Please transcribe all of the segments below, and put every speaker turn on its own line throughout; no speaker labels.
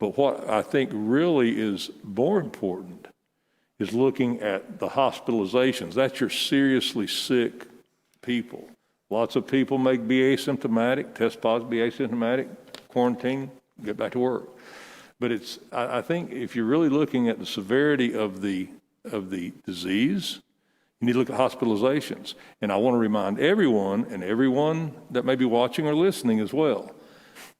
But what I think really is more important is looking at the hospitalizations. That's your seriously sick people. Lots of people may be asymptomatic, test positive, be asymptomatic, quarantine, get back to work. But it's, I, I think if you're really looking at the severity of the, of the disease, you need to look at hospitalizations. And I want to remind everyone and everyone that may be watching or listening as well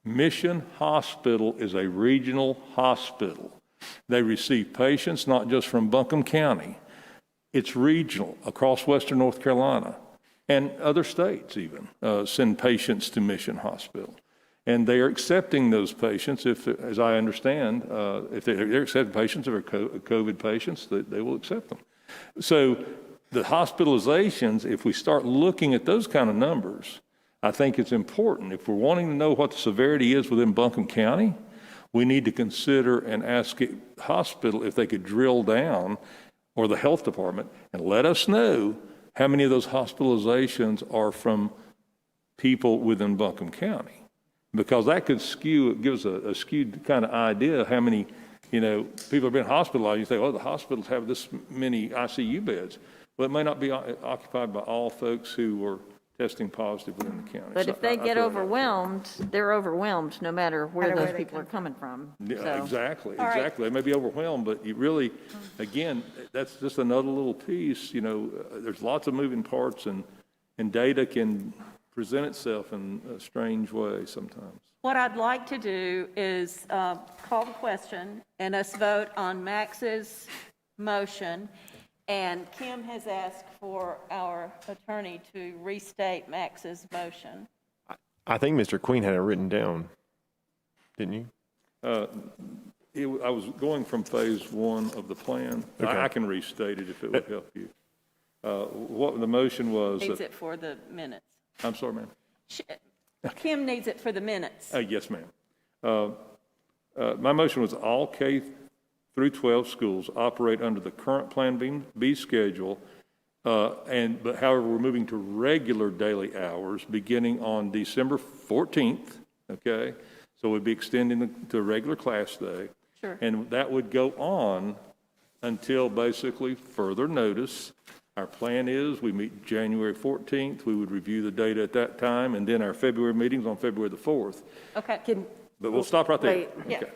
Mission Hospital is a regional hospital. They receive patients not just from Buncombe County, it's regional across Western North Carolina and other states, even uh, send patients to Mission Hospital. And they are accepting those patients if, as I understand, uh, if they're, they're accepting patients if they're co- COVID patients, they, they will accept them. So the hospitalizations, if we start looking at those kind of numbers, I think it's important. If we're wanting to know what the severity is within Buncombe County, we need to consider and ask it hospital if they could drill down or the health department and let us know how many of those hospitalizations are from people within Buncombe County. Because that could skew, it gives a, a skewed kind of idea of how many, you know, people have been hospitalized. You say, oh, the hospitals have this many ICU beds. Well, it may not be o- occupied by all folks who were testing positive within the county.
But
So
if they
I- I
get
feel-
overwhelmed, they're overwhelmed, no matter where
Matter where
those
they
people are coming from.
Yeah,
So-
exactly,
All right.
exactly. They may be overwhelmed, but you really, again, that's just another little piece, you know, uh, there's lots of moving parts and, and data can present itself in a strange way sometimes.
What I'd like to do is uh, call the question and us vote on Max's motion. And Kim has asked for our attorney to restate Max's motion.
I think Mr. Queen had it written down, didn't you?
It, w- I was going from phase one of the plan.
Okay.
I I can restate it if it would help you. Uh, What the motion was,
Needs
that-
it for the minutes.
I'm sorry, ma'am.
Sh- Kim needs it for the minutes.
Uh, Yes, ma'am. Uh, uh, My motion was all K through 12 schools operate under the current Plan B- B schedule, uh, and, but however, we're moving to regular daily hours beginning on December 14th, okay? So we'd be extending the- to regular class day.
Sure.
And that would go on until basically further notice. Our plan is, we meet January 14th, we would review the data at that time, and then our February meeting's on February the 4th.
Okay.
Can-
But we'll stop right there.
Wait.
Yeah.
Okay.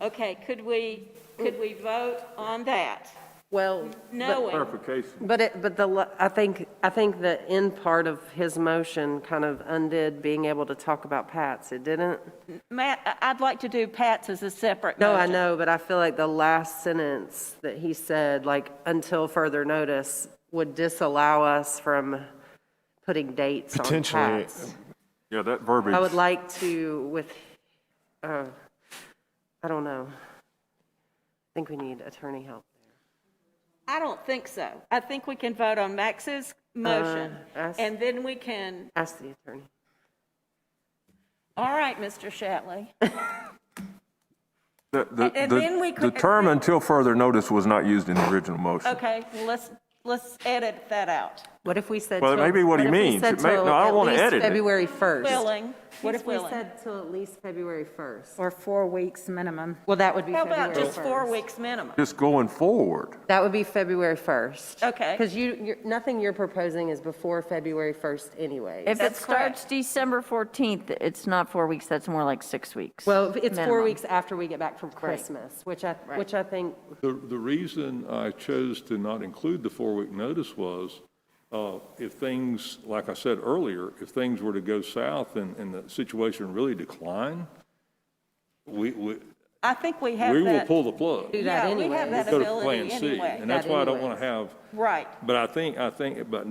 Okay, could we, could we vote on that?
Well,
Knowing.
Clarification.
but it, but the, la- I think, I think the end part of his motion kind of undid being able to talk about Pat's. It didn't?
Matt, I- I'd like to do Pat's as a separate
No, I
motion.
know, but I feel like the last sentence that he said, like, until further notice, would disallow us from putting dates on
Potentially.
Pat's.
Yeah, that verbiage.
I would like to with, uh, I don't know. I think we need attorney help.
I don't think so. I think we can vote on Max's motion,
Uh, I see.
and then we can,
Ask the attorney.
all right, Mr. Shatley.
The- the-
and
the-
then we
The
could-
term until further notice was not used in the original motion.
Okay, well, let's, let's edit that out.
What if we said?
Well, it
till-
may be what he
if we
means.
said
It may-
till
no, I don't
at
wanna
least
edit it.
February 1st.
Willing,
What
he's
if we
willing.
said till at least February 1st?
Or four weeks minimum.
Well, that would be
How
February 1st.
about just four weeks minimum?
Just going forward.
That would be February 1st.
Okay.
Because you, you're- nothing you're proposing is before February 1st anyway.
If it
That's correct.
starts December 14th, it's not four weeks, that's more like six weeks.
Well, it's four
minimum.
weeks after we get back from Christmas, which I, which I think,
The, the reason I chose to not include the four-week notice was, uh, if things, like I said earlier, if things were to go south and, and the situation really decline, we, we,
I think we have
we
that.
will pull the plug.
do that anyway.
Yeah, we have that
Go to Plan
ability
C,
anyway.
And that's why I don't
anyway.
want to have.
Right.
But I think, I think, but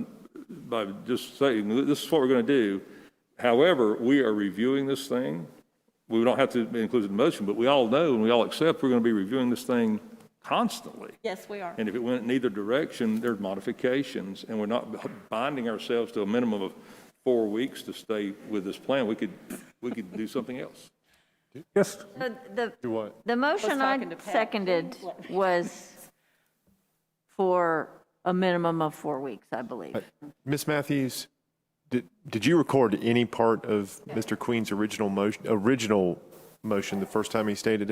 by just saying, this is what we're going to do. However, we are reviewing this thing. We don't have to include it in the motion, but we all know and we all accept we're going to be reviewing this thing constantly.
Yes, we are.
And if it went in either direction, there's modifications, and we're not binding ourselves to a minimum of four weeks to stay with this plan. We could, we could do something else.
Yes.
The- The,
what?
the motion I
talking to Pat.
seconded was for a minimum of four weeks, I believe.
Ms. Matthews, did, did you record any part of Mr. Queen's original motion, original motion the first time he stated